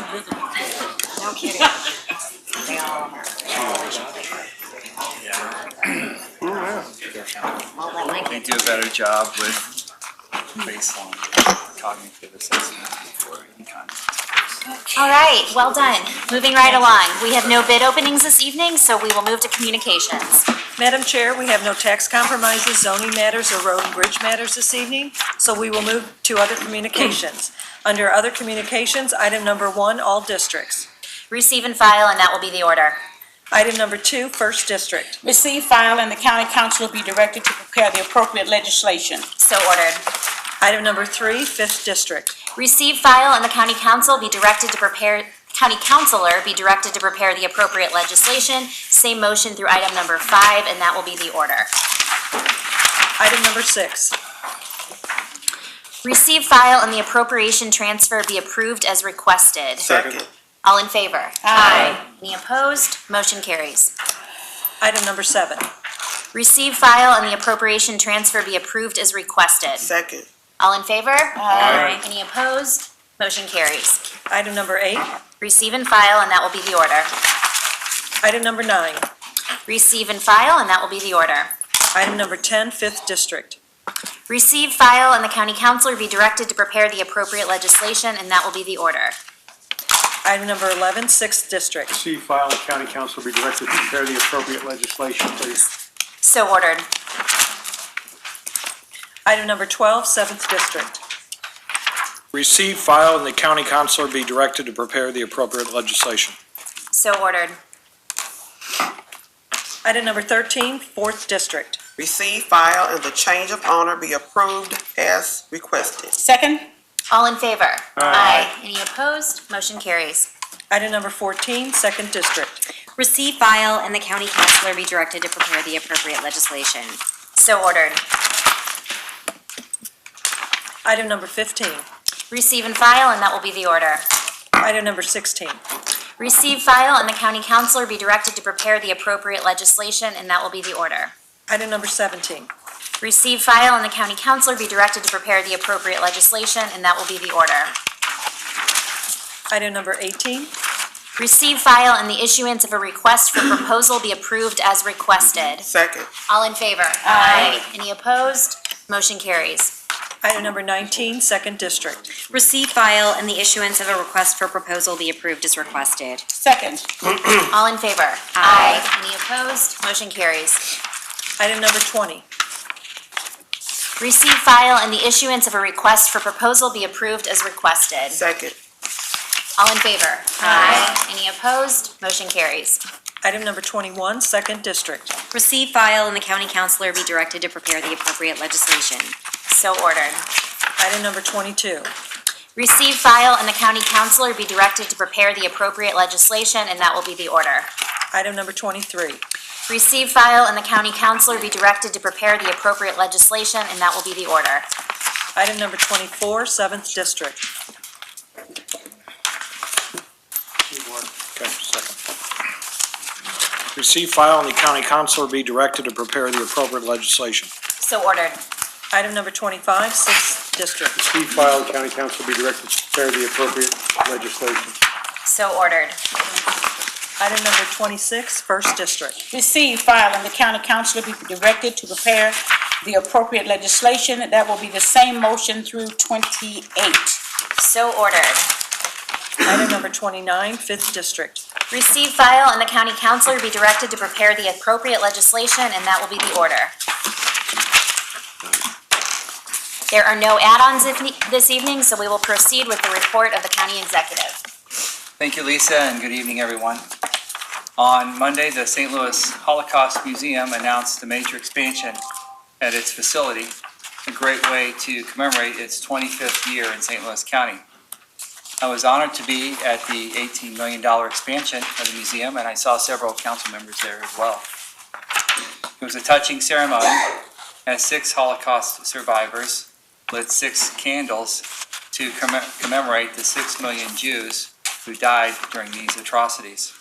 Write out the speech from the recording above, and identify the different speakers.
Speaker 1: No kidding. They all are. Well, that might
Speaker 2: We
Speaker 1: be-
Speaker 2: do a better job with baseline cognitive assessment before any contest.
Speaker 3: All right, well done. Moving right along. We have no bid openings this evening, so we will move to communications.
Speaker 4: Madam Chair, we have no tax compromises, zoning matters, or road and bridge matters this evening, so we will move to other communications. Under other communications, item number one, all districts.
Speaker 3: Receive and file, and that will be the order.
Speaker 4: Item number two, first district.
Speaker 5: Receive, file, and the county council will be directed to prepare the appropriate legislation.
Speaker 3: So ordered.
Speaker 4: Item number three, fifth district.
Speaker 3: Receive, file, and the county council be directed to prepare, county councilor be directed to prepare the appropriate legislation. Same motion through item number five, and that will be the order.
Speaker 4: Item number six.
Speaker 3: Receive, file, and the appropriation transfer be approved as requested.
Speaker 6: Second.
Speaker 3: All in favor? Aye. Any opposed? Motion carries.
Speaker 4: Item number seven.
Speaker 3: Receive, file, and the appropriation transfer be approved as requested.
Speaker 6: Second.
Speaker 3: All in favor? Aye. Any opposed? Motion carries.
Speaker 4: Item number eight.
Speaker 3: Receive and file, and that will be the order.
Speaker 4: Item number nine.
Speaker 3: Receive and file, and that will be the order.
Speaker 4: Item number 10, fifth district.
Speaker 3: Receive, file, and the county councilor be directed to prepare the appropriate legislation, and that will be the order.
Speaker 4: Item number 11, sixth district.
Speaker 7: See file and county council be directed to prepare the appropriate legislation, please.
Speaker 3: So ordered.
Speaker 4: Item number 12, seventh district.
Speaker 8: Receive, file, and the county counselor be directed to prepare the appropriate legislation.
Speaker 3: So ordered.
Speaker 4: Item number 13, fourth district.
Speaker 6: Receive, file, and the change of owner be approved as requested.
Speaker 5: Second,
Speaker 3: All in favor? Aye. Any opposed? Motion carries.
Speaker 4: Item number 14, second district.
Speaker 1: Receive, file, and the county councilor be directed to prepare the appropriate legislation.
Speaker 3: So ordered.
Speaker 4: Item number 15.
Speaker 3: Receive and file, and that will be the order.
Speaker 4: Item number 16.
Speaker 3: Receive, file, and the county councilor be directed to prepare the appropriate legislation, and that will be the order.
Speaker 4: Item number 17.
Speaker 3: Receive, file, and the county councilor be directed to prepare the appropriate legislation, and that will be the order.
Speaker 4: Item number 18.
Speaker 3: Receive, file, and the issuance of a request for proposal be approved as requested.
Speaker 6: Second.
Speaker 3: All in favor? Aye. Any opposed? Motion carries.
Speaker 4: Item number 19, second district.
Speaker 1: Receive, file, and the issuance of a request for proposal be approved as requested.
Speaker 5: second,
Speaker 3: All in favor? Aye. Any opposed? Motion carries.
Speaker 4: Item number 20.
Speaker 3: Receive, file, and the issuance of a request for proposal be approved as requested.
Speaker 6: Second.
Speaker 3: All in favor? Aye. Any opposed? Motion carries.
Speaker 4: Item number 21, second district.
Speaker 1: Receive, file, and the county councilor be directed to prepare the appropriate legislation.
Speaker 3: So ordered.
Speaker 4: Item number 22.
Speaker 3: Receive, file, and the county councilor be directed to prepare the appropriate legislation, and that will be the order.
Speaker 4: Item number 23.
Speaker 3: Receive, file, and the county councilor be directed to prepare the appropriate legislation, and that will be the order.
Speaker 4: Item number 24, seventh district.
Speaker 8: Okay, second. Receive, file, and the county counselor be directed to prepare the appropriate legislation.
Speaker 3: So ordered.
Speaker 4: Item number 25, sixth district.
Speaker 7: See file and county council be directed to prepare the appropriate legislation.
Speaker 3: So ordered.
Speaker 4: Item number 26, first district.
Speaker 5: receive, file, and the county council will be directed to prepare the appropriate legislation. That will be the same motion through twenty-eight.
Speaker 3: So ordered.
Speaker 4: Item number 29, fifth district.
Speaker 3: Receive, file, and the county councilor be directed to prepare the appropriate legislation, and that will be the order. There are no add-ons if- this evening, so we will proceed with the report of the county executive.
Speaker 2: Thank you, Lisa, and good evening, everyone. On Monday, the St. Louis Holocaust Museum announced the major expansion at its facility, a great way to commemorate its 25th year in St. Louis County. I was honored to be at the $18 million expansion of the museum, and I saw several council members there as well. It was a touching ceremony as six Holocaust survivors lit six candles to commem- commemorate the six million Jews who died during these atrocities.